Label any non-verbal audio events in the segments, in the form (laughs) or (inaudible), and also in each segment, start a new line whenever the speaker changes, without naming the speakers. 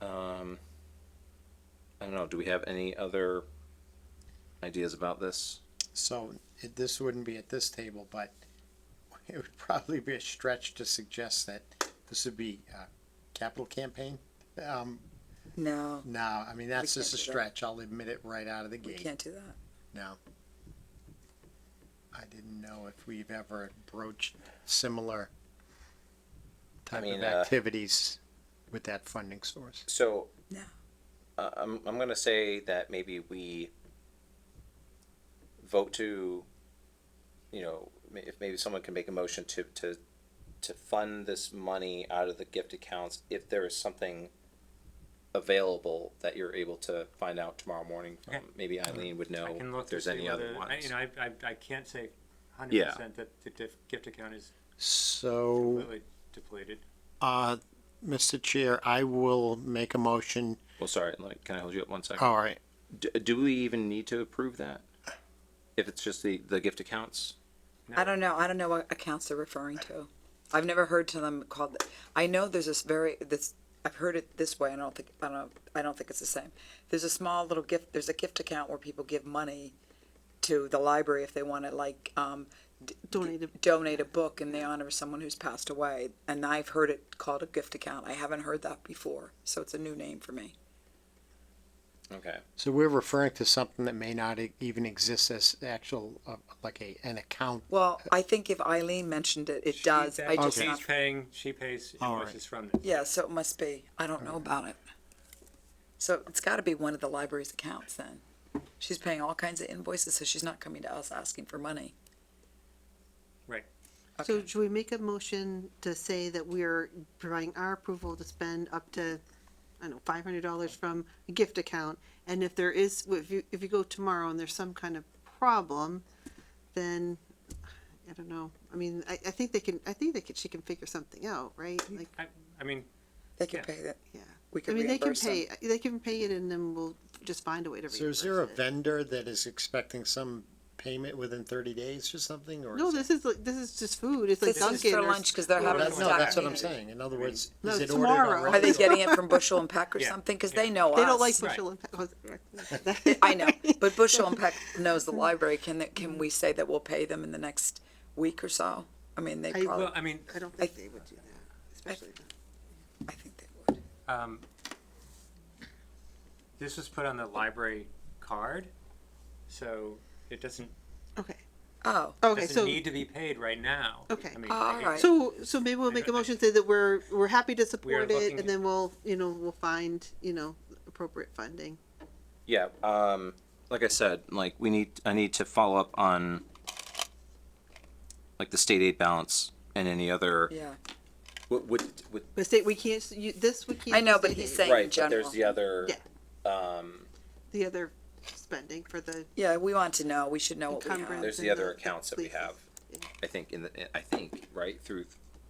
Um, do we have any other ideas about this?
So it, this wouldn't be at this table, but (laughs) it would probably be a stretch to suggest that this would be uh capital campaign. Um,
No,
no, I mean, that's
We
just a
can't do that.
stretch. I'll admit it right out of the
we
gate.
can't do that.
No. I didn't know if we've ever broached similar type
mean,
of
uh,
activities with that funding source.
So.
No.
Uh, I'm, I'm gonna say that maybe we vote to, you know, ma- if maybe someone can make a motion to, to, to fund this money out of the gift accounts, if there is something available that you're able to find out tomorrow morning, from-
Okay.
maybe Eileen would know
I can look
if
to
there's
see
any other
whether-
ones.
I- You know, I, I, I can't say hundred
Yeah.
percent that the dif- gift account is
So,
completely depleted.
uh, Mr. Chair, I will make a motion.
Well, sorry, like, can I hold you up one second?
All right.
Do, do we even need to approve that? If it's just the, the gift accounts?
I don't know. I don't know what accounts they're referring to. I've never heard to them called. I know there's this very this. I've heard it this way. I don't think I don't. I don't think it's the same. There's a small little gift. There's a gift account where people give money to the library if they want to like um, d-
Donate a-
donate a book in the honor of someone who's passed away. And I've heard it called a gift account. I haven't heard that before, so it's a new name for me.
Okay.
So we're referring to something that may not e- even exist as actual, uh, like a, an account.
Well, I think if Eileen mentioned it, it
She-
does. I
that-
just
She's
not,
paying, she pays
All right.
invoices from this.
yeah, so it must be. I don't know about it. So it's got to be one of the library's accounts then. She's paying all kinds of invoices, so she's not coming to us asking for money.
Right.
So should we make a motion to say that we're providing our approval to spend up to, I don't know, five hundred dollars from a gift account? And if there is, if you, if you go tomorrow and there's some kind of problem, then, I don't know. I mean, I, I think they can, I think they could, she can figure something out, right? Like,
I, I mean,
They can
Yeah.
pay that.
yeah.
We
I
could
mean, they can
reimburse them.
pay, they can pay it and then we'll just find a way to
So
reimburse
is there a
it.
vendor that is expecting some payment within thirty days or something, or?
No,
is it-
this is, like this is just food. It's like
This
Dunkin'
is for
or
lunch because they're
No,
having a
that's, no, that's
staff
what I'm
meeting.
saying. In other words,
No,
is it ordered
tomorrow.
already?
Are they getting it from Bushel and Peck or
Yeah.
something? Because they know us.
They don't like
Right.
Bushel and Peck.
I
(laughs)
know, but Bushel and Peck knows the library. Can that, can we say that we'll pay them in the next week or so? I mean, they
I-
probably,
well, I mean,
I don't think they would do that, especially.
I think they would.
um, this was put on the library card, so it doesn't,
Okay,
Oh,
okay,
doesn't
so,
need to be paid right now.
Okay.
I mean,
All
I
right.
guess-
so, so maybe we'll make a motion to say that we're, we're happy to support it
looking-
and then we'll, you know, we'll find, you know, appropriate funding.
Yeah, um, like I said, like we need, I need to follow up on like the state aid balance and any other,
yeah.
would, would, would,
But state, we can't, s- you, this we can't.
I know, but
state
he's
aid.
saying- in
right, but there's
general.
the other,
Yeah,
um,
the other spending for the
Yeah, we want to know. We should know what we have.
encumbrance.
there's the
and
other accounts that we have. I think in the, I think, right, through,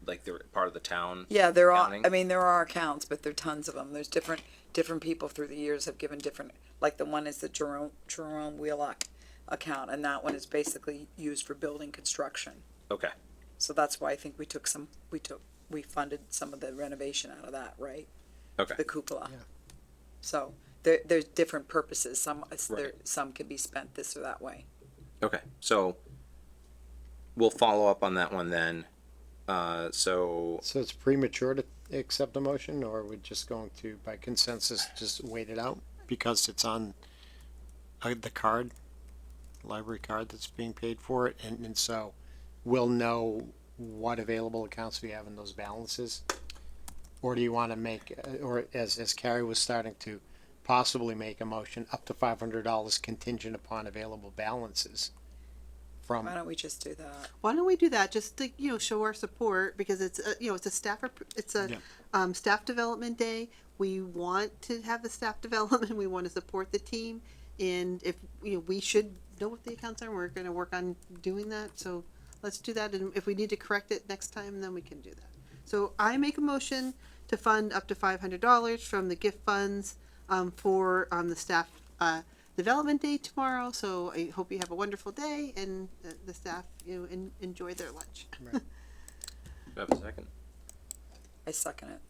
like they're part of the town.
Yeah, there are.
Accounting.
I mean, there are accounts, but there are tons of them. There's different different people through the years have given different. Like the one is the Jerome Jerome Wheelock account, and that one is basically used for building construction.
Okay,
So that's why I think we took some. We took we funded some of the renovation out of that, right?
okay,
The cupola. So there, there's different purposes. Some uh, there,
Right.
some can be spent this or that way.
okay, so we'll follow up on that one then. Uh, so,
So it's premature to accept a motion, or we're just going to, by consensus, just wait it out because it's on uh, the card, library card that's being paid for it, and, and so we'll know what available accounts we have in those balances? Or do you want to make, uh, or as, as Carrie was starting to possibly make a motion, up to five hundred dollars contingent upon available balances from,
Why don't we just do that?
Why don't we do that, just to, you know, show our support, because it's, a- you know, it's a staff, appro- it's a,
Yeah.
um, staff development day. We want to have the staff (laughs) development, we want to support the team, and if, you know, we should know what the accounts are, and we're gonna work on doing that, so let's do that, and if we need to correct it next time, then we can do that. So I make a motion to fund up to five hundred dollars from the gift funds, um, for, um, the staff, uh, development day tomorrow, so I hope you have a wonderful day, and the, the staff, you know, en- enjoy their lunch.
do I have a second?
I second it.